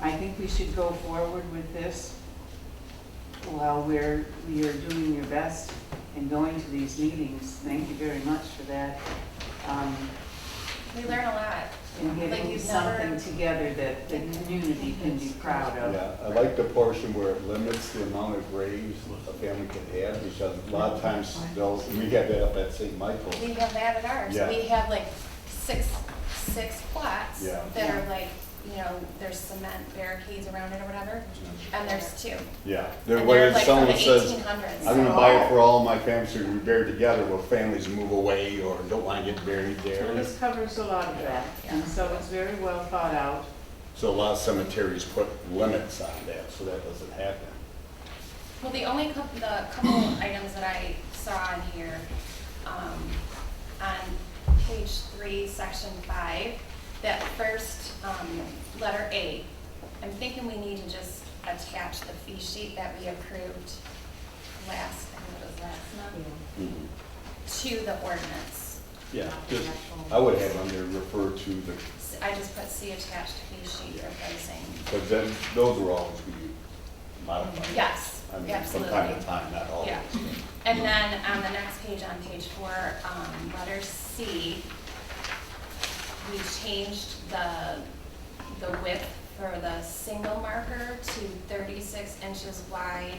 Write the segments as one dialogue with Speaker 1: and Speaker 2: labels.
Speaker 1: I think we should go forward with this while we're, you're doing your best and going to these meetings. Thank you very much for that. Um,
Speaker 2: We learn a lot.
Speaker 1: And
Speaker 2: Like
Speaker 1: getting
Speaker 2: you've never-
Speaker 1: something together that the community can be proud of.
Speaker 3: Yeah, I like the portion where it limits the amount of graves a family can have, because a lot of times those, we had that up at St. Michael's.
Speaker 2: We have that at ours.
Speaker 3: Yeah.
Speaker 2: We have like six, six plots
Speaker 3: Yeah.
Speaker 2: that are like, you know, there's cement barricades around it or whatever, and there's two.
Speaker 3: Yeah,
Speaker 2: And they're
Speaker 3: where
Speaker 2: like from
Speaker 3: someone
Speaker 2: the
Speaker 3: says,
Speaker 2: eighteen hundreds.
Speaker 3: I'm gonna buy it for all my families to be buried together, well, families move away or don't wanna get buried
Speaker 1: Well,
Speaker 3: there.
Speaker 1: this covers a lot of that, and so it's very well thought out.
Speaker 3: So a lot of cemeteries put limits on that, so that doesn't happen.
Speaker 2: Well, the only couple, the couple items that I saw on here, um, on page three, section five, that first, um, letter A, I'm thinking we need to just attach the fee sheet that we approved last, I think it was last month,
Speaker 3: Mhm.
Speaker 2: to the ordinance.
Speaker 3: Yeah, just, I would have on there refer to the,
Speaker 2: S- I just put C attached fee sheet for pricing.
Speaker 3: because then, those are always be modified.
Speaker 2: Yes,
Speaker 3: I mean, from
Speaker 2: absolutely.
Speaker 3: time to time, not always.
Speaker 2: Yeah. And then on the next page, on page four, um, letter C, we changed the, the width for the single marker to thirty-six inches wide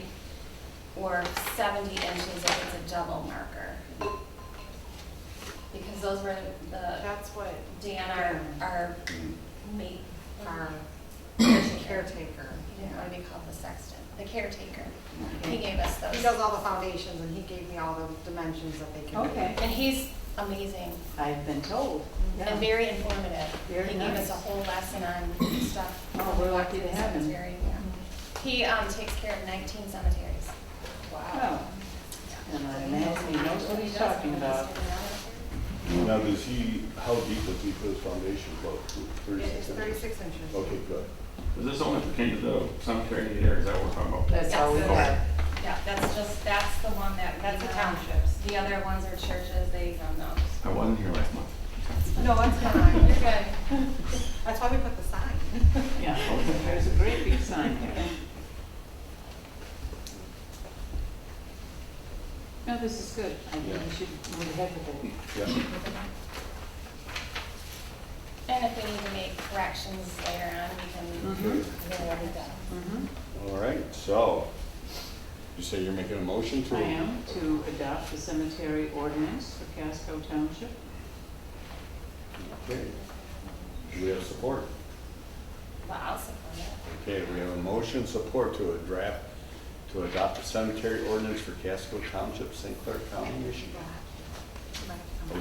Speaker 2: or seventy inches if it's a double marker. Because those were the,
Speaker 4: That's what
Speaker 2: Dan, our, our
Speaker 3: Mhm.
Speaker 2: mate,
Speaker 4: our
Speaker 2: our
Speaker 1: Mm-hmm.
Speaker 4: caretaker,
Speaker 2: He didn't want to be called the sexton, the caretaker.
Speaker 1: Okay.
Speaker 2: He gave us those.
Speaker 4: he does all the foundations and he gave me all the dimensions that they can. do.
Speaker 1: Okay.
Speaker 2: And he's amazing
Speaker 1: I've been told.
Speaker 2: and very informative.
Speaker 1: Very
Speaker 2: He gave
Speaker 1: nice.
Speaker 2: us a whole lesson on stuff.
Speaker 1: Oh, we're lucky to have him.
Speaker 2: Cemetery, yeah. He um, takes care of 19 cemeteries.
Speaker 1: Well, and I imagine he knows what he's talking about.
Speaker 3: Now, does he, how deep does he put his foundation go?
Speaker 4: It's thirty-six inches.
Speaker 3: Okay, good.
Speaker 5: Is this only pertaining to the cemetery here, is that what we're talking about?
Speaker 1: That's all we
Speaker 2: Yes.
Speaker 1: have.
Speaker 2: Yeah, that's just, that's the one that.
Speaker 4: That's the
Speaker 2: we know.
Speaker 4: townships.
Speaker 2: The other ones are churches, they don't know.
Speaker 5: I wasn't here last month.
Speaker 4: No, it's
Speaker 2: You're
Speaker 4: fine.
Speaker 2: good.
Speaker 4: That's why we put the sign.
Speaker 1: Yeah, there's a great big sign there. No, this is good. I think we should move ahead with it.
Speaker 3: Yeah.
Speaker 2: And if we need to make corrections later on, we can.
Speaker 1: Mhm.
Speaker 2: We'll get it done.
Speaker 1: Mhm.
Speaker 3: All right, so, you say you're making a motion to?
Speaker 1: I am to adopt the cemetery ordinance for Casco Township.
Speaker 3: Okay. Do we have support?
Speaker 2: Well, I'll support it.
Speaker 3: Okay, we have a motion, support to a draft, to adopt the cemetery ordinance for Casco Township, St. Clair County, Michigan.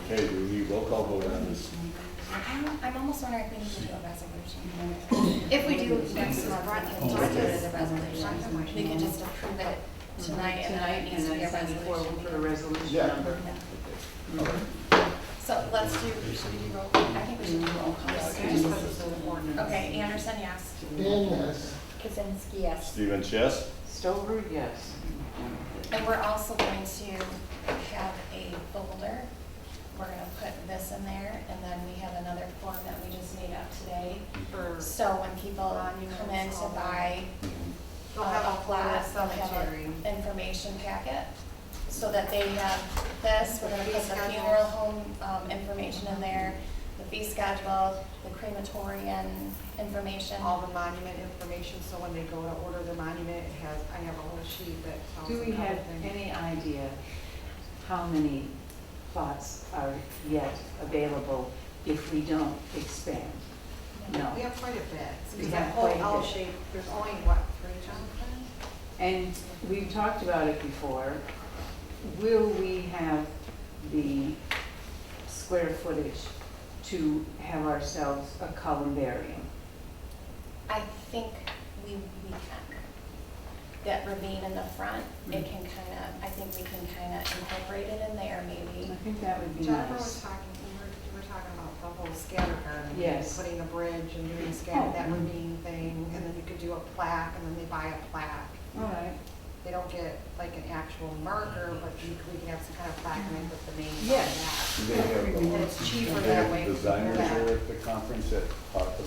Speaker 3: Okay, do we need roll call vote on this?
Speaker 2: I'm- I'm almost wondering if we need to do a resolution. If we do, that's my right, we can do it as a resolution. We can just approve it tonight and then it
Speaker 1: Tonight,
Speaker 2: needs to
Speaker 1: and
Speaker 2: be a
Speaker 1: then send it forward for a
Speaker 2: resolution.
Speaker 1: resolution
Speaker 3: Yeah.
Speaker 1: number.
Speaker 2: So let's do, should we do roll call? I
Speaker 1: Mm-hmm.
Speaker 2: think we should do roll call.
Speaker 4: We just put this in the ordinance.
Speaker 2: Okay, Anderson, yes. Kazinsky, yes.
Speaker 3: Stevens, yes?
Speaker 1: Stover, yes.
Speaker 2: And we're also going to have a folder. We're gonna put this in there and then we have another form that we just made up today.
Speaker 4: For,
Speaker 2: So when people come in to buy
Speaker 4: they'll have
Speaker 1: Uh,
Speaker 4: a plot,
Speaker 2: they'll have a
Speaker 4: Uh, cemetery.
Speaker 2: Information packet, so that they have this, we're gonna put the funeral home, um, information in there, the fee schedule, the crematorium information.
Speaker 4: all the monument information, so when they go to order the monument, it has, I have a whole sheet that tells
Speaker 1: Do
Speaker 4: them
Speaker 1: we have
Speaker 4: everything.
Speaker 1: any idea how many plots are yet available if we don't expand? No.
Speaker 4: We have quite a bit,
Speaker 1: We
Speaker 4: because
Speaker 1: have
Speaker 4: that whole
Speaker 1: quite a
Speaker 4: L
Speaker 1: bit.
Speaker 4: shape, there's only what, three Jonathan?
Speaker 1: And we've talked about it before. Will we have the square footage to have ourselves a columbarium?
Speaker 2: I think we, we can. That ravine in the front,
Speaker 4: Mm.
Speaker 2: it can kinda, I think we can kinda incorporate it in there maybe.
Speaker 1: I think that would be
Speaker 4: Jennifer
Speaker 1: nice.
Speaker 4: was talking, we were, we were talking about the whole scatter garden.
Speaker 1: Yes.
Speaker 4: Putting a bridge and doing scatter, that
Speaker 1: Oh.
Speaker 4: ravine thing, and then you could do a plaque, and then they buy a plaque.
Speaker 1: All right.
Speaker 4: They don't get like an actual marker, but you, we can have some kind of plaque and then put the name on
Speaker 1: Yes.
Speaker 4: that.
Speaker 3: Do they have,
Speaker 4: And
Speaker 3: the-
Speaker 4: it's cheaper
Speaker 3: do they
Speaker 4: that
Speaker 3: have
Speaker 4: way.
Speaker 3: designers
Speaker 4: Yeah.
Speaker 3: there at uh, the conference that talked about